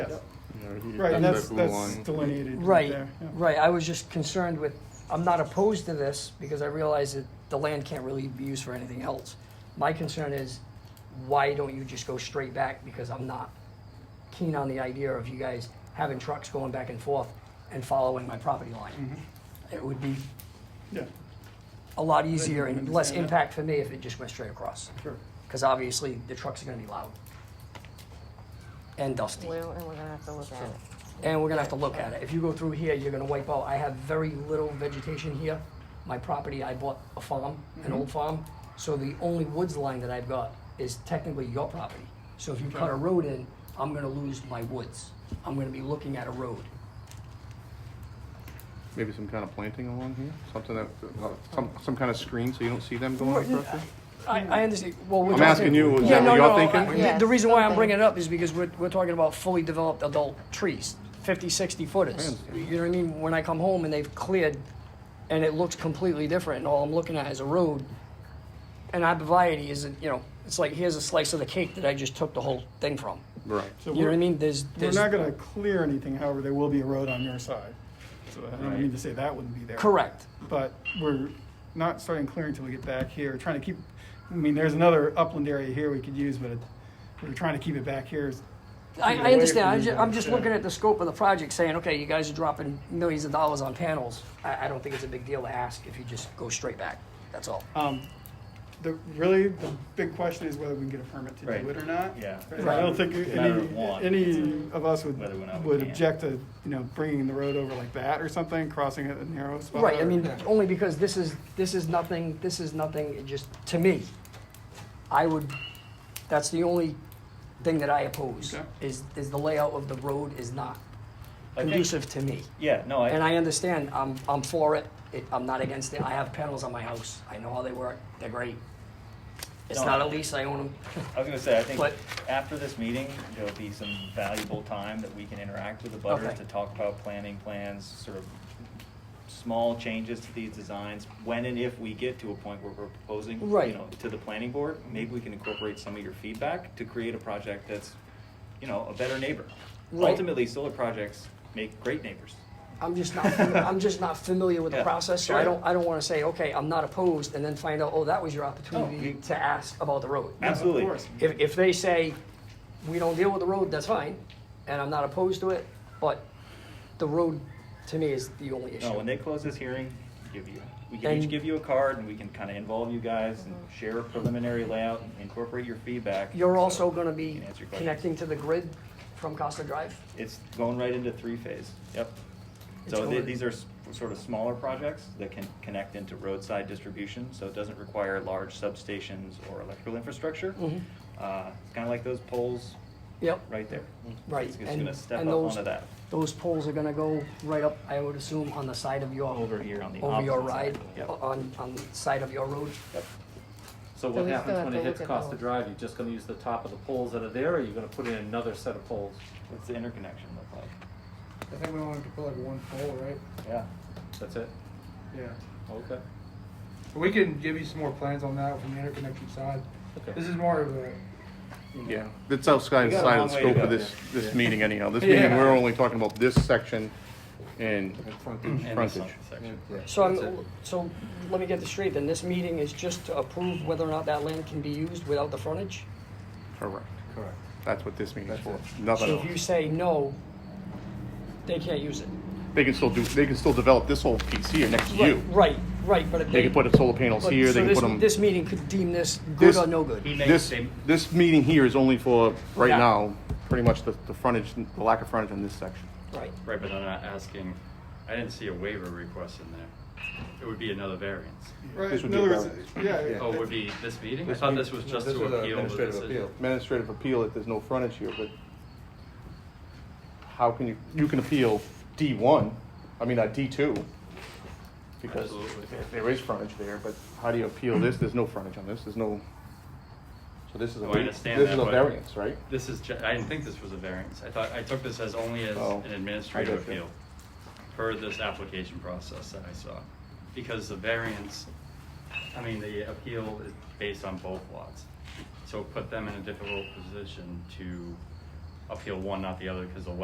Yes. Right, and that's, That's the blue that's line. delineated right Right, there. yeah. right. I was just concerned with, I'm not opposed to this because I realize that the land can't really be used for anything else. My concern is, why don't you just go straight back? Because I'm not keen on the idea of you guys having trucks going back and forth and following my property line. Mm-hmm. It would be Yeah, a lot easier and less understand that. impact for me if it just went straight across. sure. Because obviously, the trucks are gonna be loud and dusty. blue, and we're gonna have to look at it. And we're gonna have to look at it. If you go through here, you're gonna wipe out, I have very little vegetation here. My property, I bought a farm, an old farm, so the only woods line that I've got is technically your property. So if you cut a road in, I'm gonna lose my woods. I'm gonna be looking at a road. Maybe some kind of planting along here, something that, some, some kind of screen so you don't see them going across it? I, I understand, well, we're I'm talking- asking you, is Yeah, that no, what no. y'all I- thinking? Yeah. The reason why I'm something. bringing it up is because we're, we're talking about fully developed adult trees, 50, 60 footers. You know what I mean? When I come home and they've cleared and it looks completely different and all I'm looking at is a road. And abivity is, you know, it's like, here's a slice of the cake that I just took the whole thing from. Right. So You know what I we're- mean? There's, We're there's, not gonna clear anything, however, there will be a road on your side. So I don't mean to say that wouldn't be there. correct. But we're not starting clearing until we get back here, trying to keep, I mean, there's another upland area here we could use, but it- we're trying to keep it back here. I, Yeah, I way from understand. I'm the just, I'm village, just yeah. looking at the scope of the project, saying, okay, you guys are dropping millions of dollars on panels. I, I don't think it's a big deal to ask if you just go straight back. That's all. Um, The, really, the big question is whether we can get a permit to Right. do it or not. Yeah. And I don't think It's a matter of any, want. any of us would, Whether or not we would can. object to, you know, bringing the road over like that or something, crossing it a narrow spot. Right, I or- mean, uh, Yeah. only because this is, this is nothing, this is nothing, it just, to me, I would, that's the only thing that I oppose, Okay. is, is the layout of the road is not I think- conducive to me. Yeah, no, And I, I understand, I'm, I'm for it, it, I'm not against it, I have panels on my house, I know how they work, they're great. It's No, not I- a lease, I own them. I was gonna say, I think But- after this meeting, there'll be some valuable time that we can interact with the butters Okay. to talk about planning plans, sort of small changes to these designs, when and if we get to a point where we're proposing, Right. you know, to the planning board, maybe we can incorporate some of your feedback to create a project that's, you know, a better neighbor. Right. Ultimately, solar projects make great neighbors. I'm just not, I'm just not familiar with the Yeah, process, so I sure. don't, I don't wanna say, okay, I'm not opposed, and then find out, oh, that was your opportunity you- to ask about the road. Absolutely. Of course. If, if they say, we don't deal with the road, that's fine, and I'm not opposed to it, but the road to me is the only No, Oh, when issue. they close this hearing, give you, we can each And- give you a card and we can kind of involve you guys and share a preliminary layout and incorporate your feedback. You're So also gonna you be can answer your questions. connecting to the grid from Costa Drive? It's going right into three phase, yep. It's So th- going- these are s- sort of smaller projects that can connect into roadside distribution, so it doesn't require large substations or electrical infrastructure. Mhm. Uh, it's kind of like those poles Yep, right there. Right, It's just and- gonna step and up those- onto that, those poles are gonna go right up, I would assume, on the side of your, over here on the over your opposite ride, side. Yep. on, on the side of your road? Yep. So So what we still happens have when to it hits look at Costa those. Drive, you're just gonna use the top of the poles that are there, or you're gonna put in another set of poles? What's the interconnection look like? I think we wanted to put like one pole, right? Yeah. That's it? Yeah. Okay. We can give you some more plans on that from the interconnection side. Okay. This is more of a, Yeah, it's outside We got a side long of the way to scope of go. this, this meeting anyhow. This meeting, Yeah. we're only talking about this section and And the frontage. section. So I'm, so let me get this straight, then this meeting is just to approve whether or not that land can be used without the frontage? Correct. Correct. That's what this meeting's for, That's nothing So if you else. say no, they can't use it. They can still do, they can still develop this whole piece here next to you. Right, right, but if They can put the solar panels but- here, so they can this- put them. This meeting could deem this good This- or no good. may This, say- this meeting here is only for, right Yeah. now, pretty much the, the frontage, the lack of frontage on this section. Right, Right, but I'm not asking, I didn't see a waiver request in there. It would be another variance. Right, This would in be other a words, yeah. Oh, it would be this meeting? I thought this was just to appeal the decision. Administrative appeal that there's no frontage here, but how can you, you can appeal D one, I mean, uh, D two. Because Absolutely. there- there is frontage there, but how do you appeal this? There's no frontage on this, there's no, so this is a, Oh, I understand this is that, a but- variance, right? This is, ju- I didn't think this was a variance. I thought, I took this as only as Oh, an I administrative gotcha. appeal per this application process that I saw. Because the variance, I mean, the appeal is based on both lots. So it put them in a difficult position to appeal one, not the other, because the